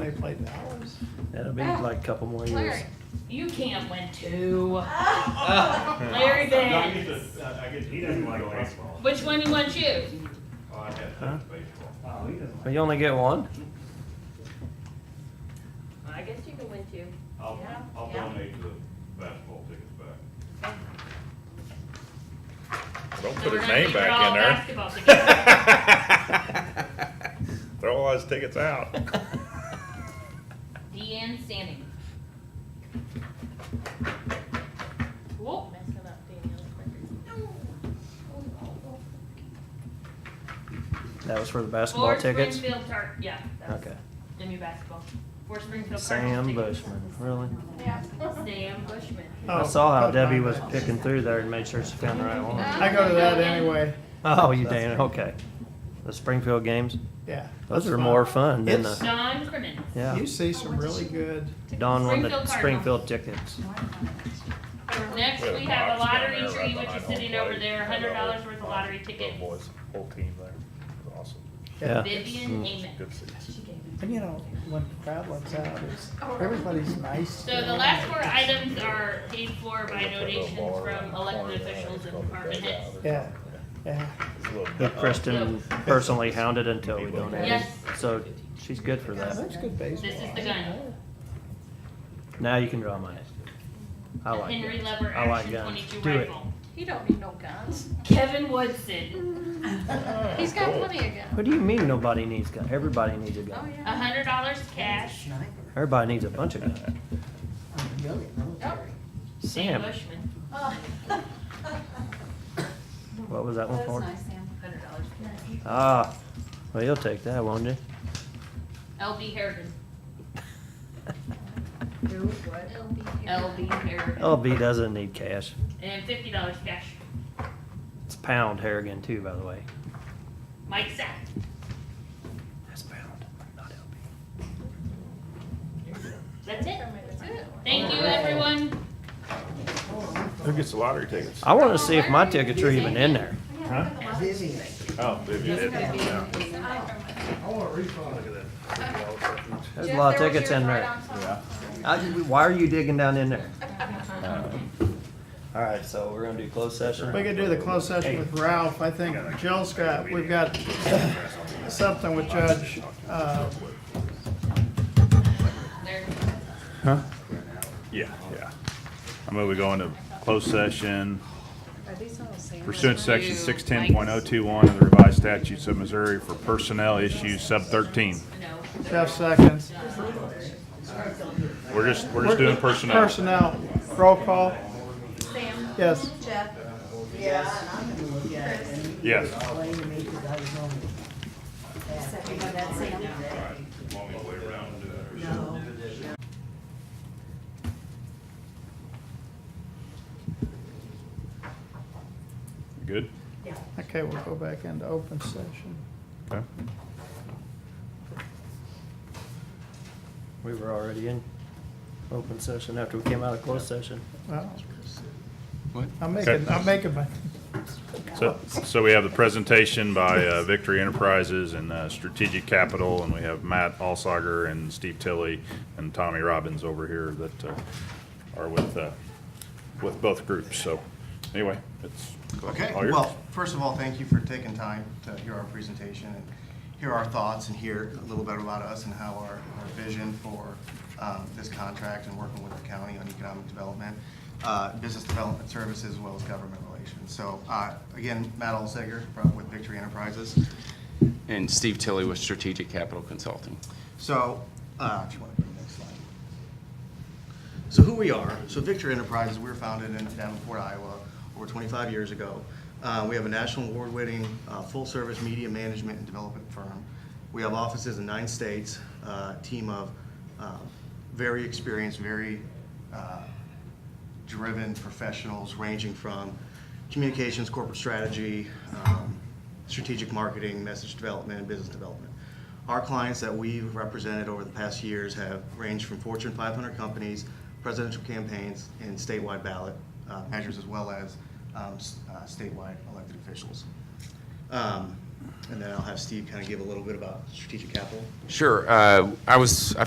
when they played the Owls. That'll be like a couple more years. Ah, Larry, you can't win two. Ah. Larry Bennett. He doesn't like baseball. Which one you want to choose? Oh, I have Huh? baseball. Oh, he doesn't. But you only get one? I guess you can win two. I'll, Yeah, I'll yeah. donate the basketball tickets back. Don't So put we're his gonna name keep it all back in basketball together. there. Throw all his tickets out. Deanne Standing. Whoop, messing up Danielle's record. That was for the basketball For tickets? Springfield Tar, yeah, that's Okay. the new basketball. For Springfield Sam Cardinals Bushman, really? tickets. Sam Bushman. Oh, I saw how Debbie was picking through there and made sure she found the right one. I go to that anyway. Ah. Oh, you damn, okay. The Springfield games, Yeah. those that's are fun. more fun than It's- the, Don Crimmins. yeah. You see some really good. Don won the Springfield Springfield tickets. Next, We had we a have a box down lottery there tree, which right behind Oh, is home sitting over plate. there, hundred dollars worth of Little lottery tickets. boys, whole team there. It was Awesome. Yeah. Mm. Vivian Amen. Good seats. And you know, when the crowd lets out, it's, everybody's nice. So the last four items are paid for by donations from elected officials and department heads. Yeah, yeah. Who Kristen personally hounded until we donated. Yes. So she's good for Yeah, that. that's good baseball. This is the gun. Now you can draw money. I A like Henry it. Lever I like Action guns. twenty-two Do it. rifle. He don't need no guns. Kevin Woodson, He's got Oh, Oh. Cool. plenty of guns. What do you mean nobody needs gun? Everybody needs a Oh, gun. a yeah. hundred dollars cash. Everybody needs a bunch of guns. Yep. Sam Sam, Bushman, Oh. what was that one That's for? nice, Sam. hundred dollars cash. Ah, well, you'll take that, won't you? LB Harrigan, Who, what? LB Harrigan, LB doesn't need cash. and fifty dollars cash. It's pound Harrigan too, by the way. Mike Sack. That's pound, not LB. That's it. Thank you, everyone. Who gets the lottery tickets? I wanna see if my tickets are even in there. Oh, Vivian did. Yeah. There's a lot of tickets in there. I- Why are you digging down in there? All right, so we're gonna do closed session. We could do the closed session with Ralph. I think Jill's got, we've got something with Judge, uh, There. Yeah, yeah. I move we go into closed session pursuant to section six ten point oh two one of the revised statutes of Missouri for personnel issues sub thirteen. No. Jeff Seconds. We're just, we're just doing personnel. Personnel, roll call. Yes. Yes. Good? Okay, we'll go back into open session. Okay. We were already in open session after we came out of closed session. Well, I'm making, I'm making my, So, so we have the presentation by uh, Victory Enterprises and uh, Strategic Capital, and we have Matt Alsager and Steve Tilley and Tommy Robbins over here that uh, are with, uh, with both groups, so anyway, it's Okay, all yours. well, first of all, thank you for taking time to hear our presentation and hear our thoughts and hear a little bit about us and how our, our vision for um, this contract and working with the county on economic development, uh, business development services, as well as government relations. So, uh, again, Matt Olseger from- with Victory Enterprises. And Steve Tilley with Strategic Capital Consulting. So, uh, if you want to bring the next slide. So who we are, so Victor Enterprises, we were founded in Davenport, Iowa, over 25 years ago. Uh, We have a national award-winning, uh, full-service media management and development firm. We have offices in nine states, a team of uh, very experienced, very uh, driven professionals ranging from communications, corporate strategy, um, strategic marketing, message development, and business development. Our clients that we've represented over the past years have ranged from Fortune 500 companies, presidential campaigns, and statewide ballot uh, measures, as well as um, s- uh, statewide elected officials. Um, And then I'll have Steve kind of give a little bit about strategic capital. Sure, uh, I was, I